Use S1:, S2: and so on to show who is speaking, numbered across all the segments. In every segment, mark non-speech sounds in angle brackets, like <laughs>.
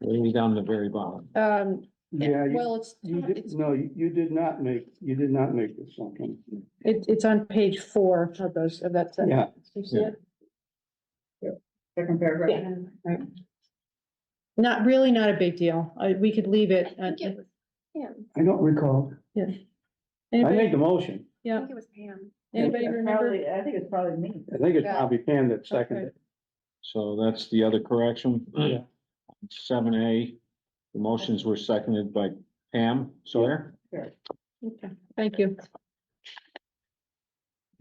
S1: way down the very bottom.
S2: Um,
S3: Yeah, you,
S2: well, it's,
S3: you did,
S2: it's,
S3: no, you, you did not make, you did not make this assumption.
S2: it- it's on page four of those, of that
S3: Yeah.
S2: sentence. You see it?
S4: Second paragraph. Right.
S2: Not, really not a big deal. I, we could leave
S5: I
S2: it. at-
S5: think it was,
S3: I don't recall. I
S2: Anybody,
S3: made the motion.
S5: I
S2: yeah,
S5: think it was Pam.
S2: anybody
S4: It's
S2: remember?
S4: probably- I think it's probably me.
S3: I think it's
S2: Yeah.
S3: probably Pam that seconded. it.
S1: So that's the other correction.
S3: Yeah.
S1: Seven A, the motions were seconded by Pam Sawyer.
S2: Okay, Thank you.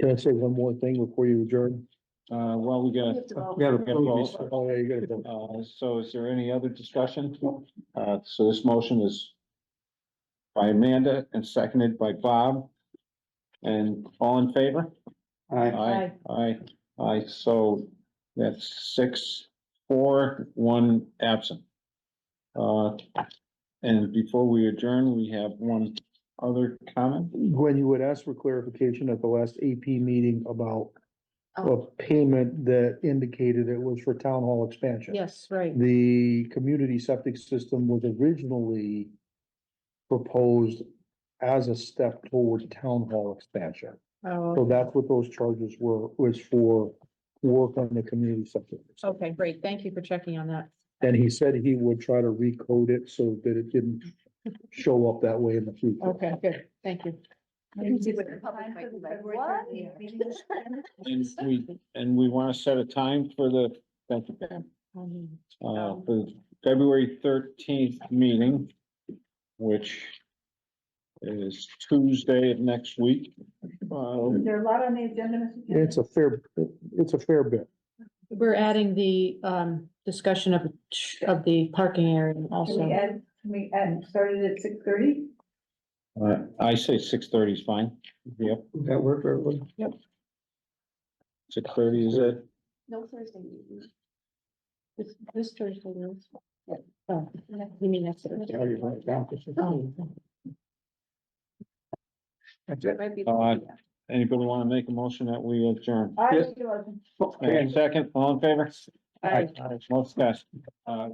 S6: Can I say one more thing before you adjourn?
S1: Uh, well, we
S5: We
S1: got,
S5: have to vote.
S1: we have a vote.
S6: Oh, yeah, you gotta vote.
S1: Uh, so is there any other discussion? Uh, so this motion is by Amanda and seconded by Bob. And all in favor?
S3: I,
S1: Aye, aye, aye. So that's six, four, one absent. Uh, and before we adjourn, we have one other comment.
S6: Gwen, you would ask for clarification at the last AP meeting about a
S5: Oh.
S6: payment that indicated it was for town hall expansion.
S2: Yes, right.
S6: The community septic system was originally proposed as a step toward town hall expansion. So
S2: Oh,
S6: that's what those charges were, was for work on the community septic. system.
S2: okay, great. Thank you for checking on that.
S6: And he said he would try to recode it so that it didn't show up that way in the future.
S2: Okay, good. Thank you.
S5: It was a public
S4: Time for the
S5: meeting, like,
S4: February
S5: what?
S4: 30th
S1: And we, and we want to set a time for the, thank you, Pam, uh, for the February thirteenth meeting, which is Tuesday of next week. Uh,
S4: Is there a lot on the agenda, Mr. Chairman?
S6: It's a fair, it's a fair bit.
S2: <laughs> We're adding the, um, discussion of, of the parking area
S4: Can
S2: also.
S4: we add, can we add, started at six thirty?
S1: uh, I say six thirty is fine. Yep,
S3: that worked, everyone?
S1: six thirty is it.
S5: No Thursday meeting.
S2: This, this Thursday is.
S4: Yeah.
S2: Oh, you mean next Thursday?
S3: Yeah, you write it down.
S2: Oh,
S3: That's it.
S5: Might be-
S1: Uh, Anybody want to make a motion that we adjourn?
S4: I
S3: Yeah.
S4: think it was.
S1: And second, all in favor?
S2: I-
S1: Most guys. Uh,